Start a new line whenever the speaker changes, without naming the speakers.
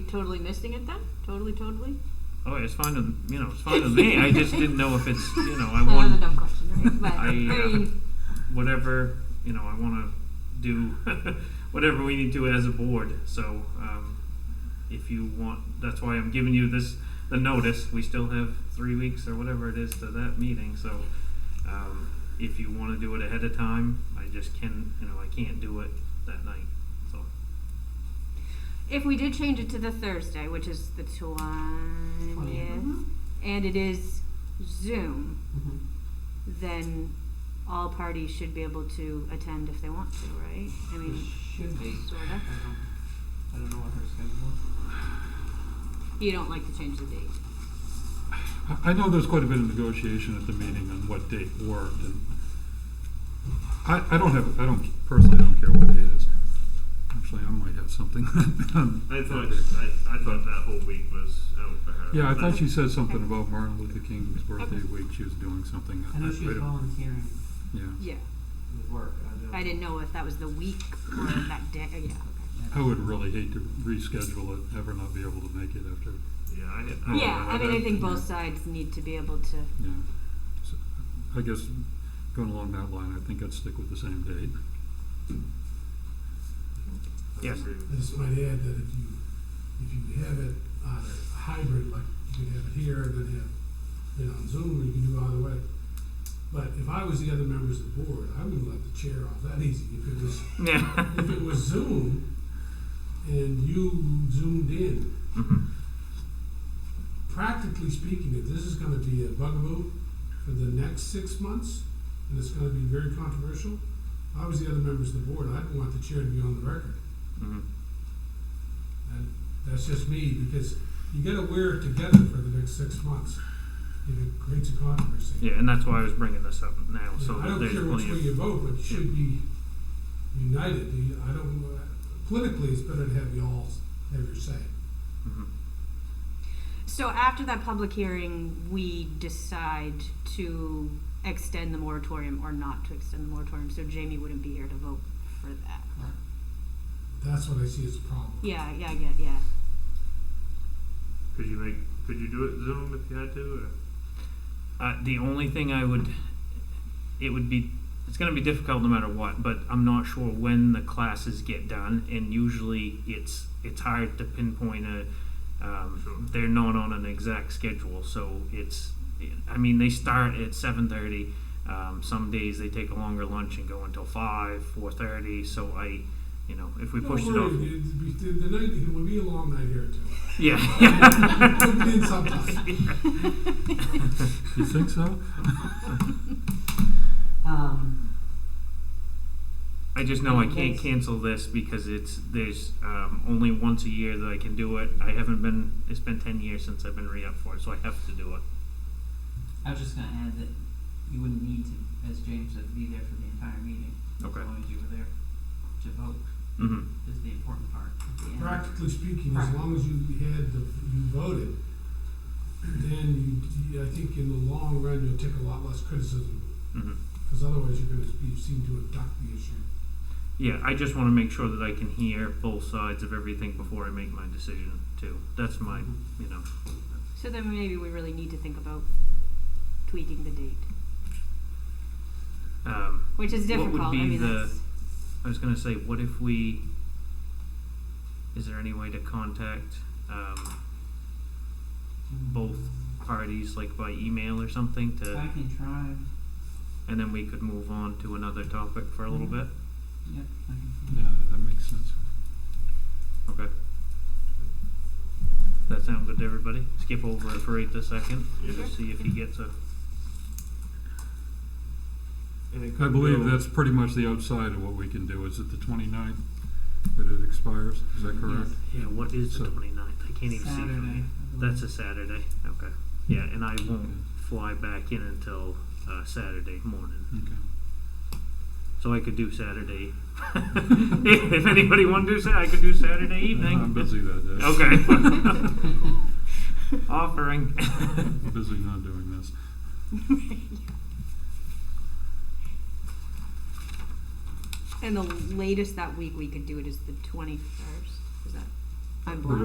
totally missing it then? Totally, totally?
Oh, it's fine with you know, it's fine with me. I just didn't know if it's you know, I
Another
want
dumb question, right? But,
I,
I,
uh,
mean,
whatever you know. I want to do whatever we need to as a board. So um, if you want, that's why I'm giving you this the notice. We still have three weeks or whatever it is to that meeting. So um, if you want to do it ahead of time, I just can you know I can't do it that night. So
If we did change it to the Thursday, which is the 20th, and it is Zoom,
Mm-hmm.
then all parties should be able to attend if they want to, right? I
It
mean,
should be.
sort
I
of.
don't, I don't know what her schedule
You don't like to change the date.
I- I know there's quite a bit of negotiation at the meeting on what date worked, and I, I don't have, I don't, personally, I don't care what day it is. Actually, I might have something.
I thought I, I thought that whole week was out for her.
Yeah, I thought she said something about Martin Luther King's birthday week, she was doing something.
is. I know she was
don't-
volunteering
Yeah,
Yeah.
with work. I don't.
I didn't know if that was the week or that day. Oh, yeah, okay.
I would really hate to reschedule it, ever not be able to make it after,
Yeah, I, had-
Oh,
yeah, I mean, I
okay.
think both sides need to be able to.
yeah. So, I guess, going along that line, I think I'd stick with the same date.
I
Yes.
agree with
I just might add that if you, if you have it on a hybrid, like you could have it here and then have it on Zoom, or you can do it either way. But if I was the other members of the board, I wouldn't let the chair off that easy. If it was,
yeah.
if it was Zoom and you zoomed in,
Mhm.
practically speaking, if this is gonna be a bugaboo for the next six months, and it's gonna be very controversial, if I was the other members of the board, I'd want the chair to be on the record.
Mhm.
And that's just me, because you gotta wear it together for the next six months. If it creates a controversy.
Yeah, and that's why I was bringing this up now.
You
So
know, I
that
don't
there's
care which
plenty
way
of
you vote, but you should be united. You- I don't, politically, it's better to have you all have your say.
mhm.
So after that public hearing, we decide to extend the moratorium or not to extend the moratorium. So Jamie wouldn't be here to vote for that.
That's what I see as a problem.
Yeah, yeah, yeah, yeah.
Could you make? Could you do it Zoom if you had to?
Uh, the only thing I would, it would be, it's going to be difficult no matter what. But I'm not sure when the classes get done, and usually it's it's hard to pinpoint a. Um,
Sure.
They're not on an exact schedule, so it's. I mean, they start at seven thirty. Um, some days they take a longer lunch and go until five, four thirty. So I, you know, if we
Don't
pushed it
worry,
off,
it'd be- The the night, it will be a long night here too.
yeah.
We'll be in sometime.
You think so?
Um,
I just know I can't
Yes.
cancel this because it's there's um, only once a year that I can do it. I haven't been. It's been ten years since I've been re up for it, so I have to do it.
I was just gonna add that you wouldn't need to, as James said, be there for the entire meeting.
Okay.
As long as you were there to vote
hmm
is the important part at the end.
Practically speaking, as long as you had, the you voted, then you, you- I think in the long run, you'll take a lot less criticism,
hmm
because otherwise you're gonna be seen to abduct the issue.
Yeah, I just want to make sure that I can hear both sides of everything before I make my decision too. That's my, you know.
So then maybe we really need to think about tweaking the date,
Um,
which is
What would
difficult. I
be
mean,
the-
that's,
I was gonna say, what if we? Is there any way to contact um, both parties, like by email or something, to?
I can try.
and then we could move on to another topic for a little bit.
Yep, I can try.
Yeah, that makes sense.
Okay. That sound good to everybody? Skip over it for eight a second.
Yes.
Just see if he gets a.
And it
I
could
believe
go-
that's pretty much the outside of what we can do. Is it the 29th that it expires? Is that correct?
Yeah, what is the
So-
29th? I can't even see from
Saturday.
here.
I believe.
That's a Saturday. Okay. Yeah, and I won't fly back in until uh, Saturday morning.
Okay.
So I could do Saturday. if anybody wanted to do Saturday, I could do Saturday evening.
I'm busy that day.
Okay. Offering.
Busy not doing this.
and the latest that week we could do it is the 21st. Is that? I'm blind.